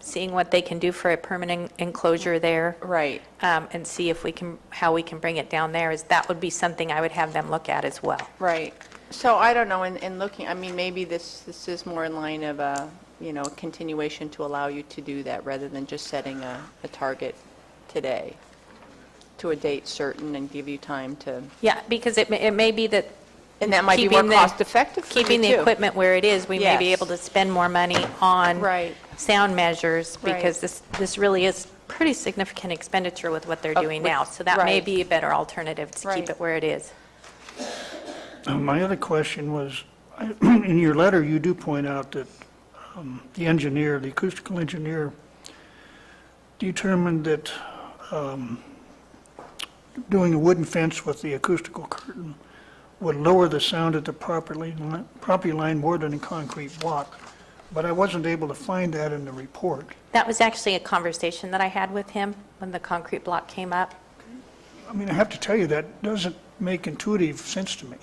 seeing what they can do for a permanent enclosure there. Right. um, And see if we can, how we can bring it down there, is that would be something I would have them look at as well. Right. So I don't know, in, in looking, I mean, maybe this, this is more in line of a, you know, continuation to allow you to do that rather than just setting a, a target today to a date certain and give you time to, Yeah, because it may, it may be that and that might be more Keeping the- cost effective for you keeping the too. equipment where it is, we may be Yes. able to spend more money on Right. sound measures, Right. because this, this really is pretty significant expenditure with what they're Of- doing Oh, with- now. So that may right. be a better alternative, to keep Right. it where it is. Um, My other question was, I- in your letter, you do point out that um, the engineer, the acoustical engineer, determined that um, doing a wooden fence with the acoustical curtain would lower the sound at the property, li- property line more than a concrete block, but I wasn't able to find that in the report. That was actually a conversation that I had with him when the concrete block came up. I mean, I have to tell you, that doesn't make intuitive sense to me.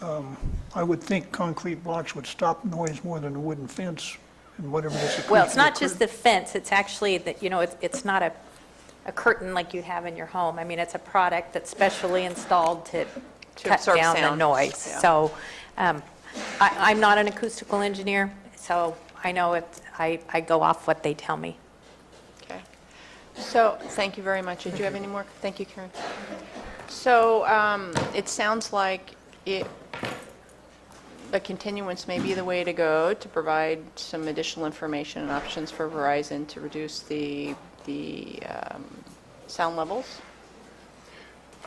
Um, I would think concrete blocks would stop noise more than a wooden fence and whatever this Well, it's acoustical not just curtain- the fence, it's actually that, you know, it's, it's not a, a curtain like you have in your home. I mean, it's a product that's specially installed to cut absorb down the sound, noise. yeah. So um, I, I'm not an acoustical engineer, so I know it, I, I go off what they tell me. Okay. So, thank you very much. Did you have any more? Thank you, Karen. So, um, it sounds like it, a continuance may be the way to go to provide some additional information and options for Verizon to reduce the, the um, sound levels?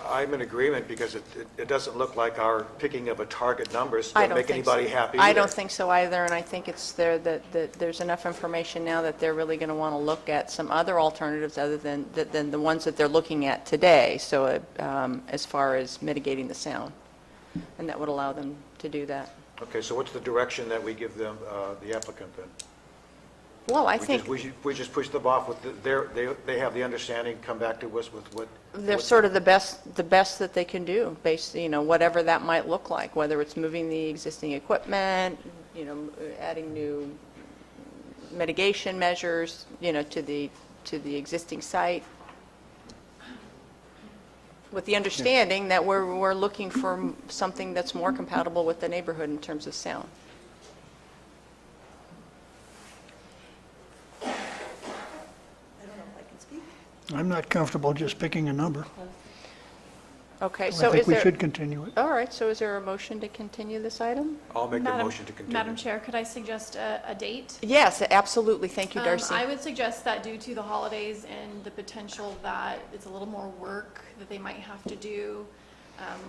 I'm in agreement because it, it- it doesn't look like our picking of a target numbers I doesn't don't make think so. anybody happy I either. don't think so either, and I think it's there, that, that there's enough information now that they're really going to want to look at some other alternatives other than, that- than the ones that they're looking at today, so uh, um, as far as mitigating the sound, and that would allow them to do that. Okay, so what's the direction that we give them, uh, the applicant then? Well, I We just- think We ju- we just push them off with the- their, they, they have the understanding, come back to us with what. they're what- sort of the best, the best that they can do, based, you know, whatever that might look like, whether it's moving the existing equipment, you know, adding new mitigation measures, you know, to the, to the existing site, with the understanding that we're, we're looking for m- something that's more compatible with the neighborhood in terms of sound. I'm not comfortable just picking a number. Okay, I so is think we there, should continue it. all right, so is there a motion to continue this item? I'll make the Madam- motion to continue. Madam Chair, could I suggest a, a date? Yes, absolutely, thank you, Um, Darcy. I would suggest that due to the holidays and the potential that it's a little more work that they might have to do, um,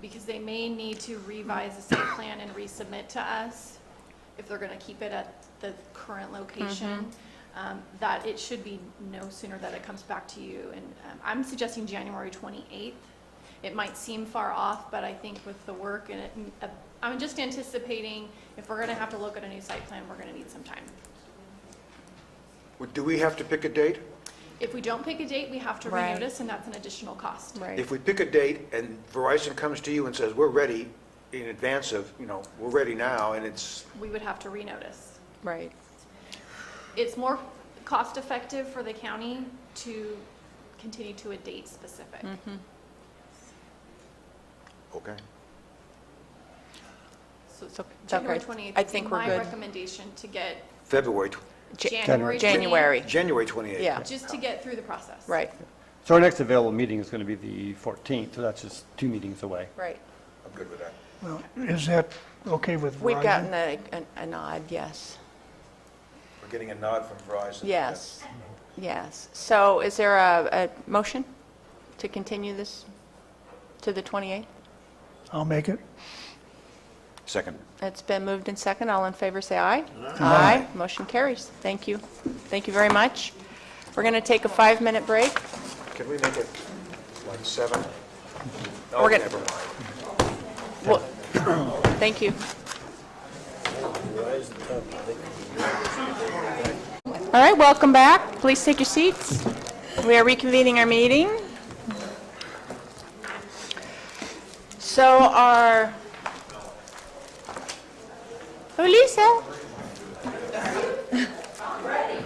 because they may need to revise the site plan and resubmit to us if they're going to keep it at the current location, Mm-hmm. um, that it should be no sooner that it comes back to you. And um, I'm suggesting January 28th. It might seem far off, but I think with the work and it, uh, I'm just anticipating if we're going to have to look at a new site plan, we're going to need some time. Well, Do we have to pick a date? If we don't pick a date, we have to Right. renotice, and that's an additional cost. Right. If we pick a date and Verizon comes to you and says, we're ready in advance of, you know, we're ready now, and it's, We would have to renotice. Right. It's more cost-effective for the county to continue to a date specific. Mm-hmm. okay. So So- it's okay. January 28th I would be think we're my good. recommendation to get February, tw- Ja- January 28th. January, January 28th. yeah, Just to get through the process. right, So our next available meeting is going to be the 14th, so that's just two meetings away. right. I'm good with that. Well, is that okay with Verizon? We've gotten a, an- a nod, yes, We're getting a nod from Verizon. yes, yes. So is there a, a motion to continue this to the 28th? I'll make it. Second. It's been moved and second, all in favor, say aye. Aye. Motion carries, thank you, thank you very much. We're going to take a five-minute break. Can we make it like seven? We're Oh, gonna- never mind. Well, Thank you. All right, welcome back. Please take your seats. We are reconvening our meeting. So our, oh, Lisa,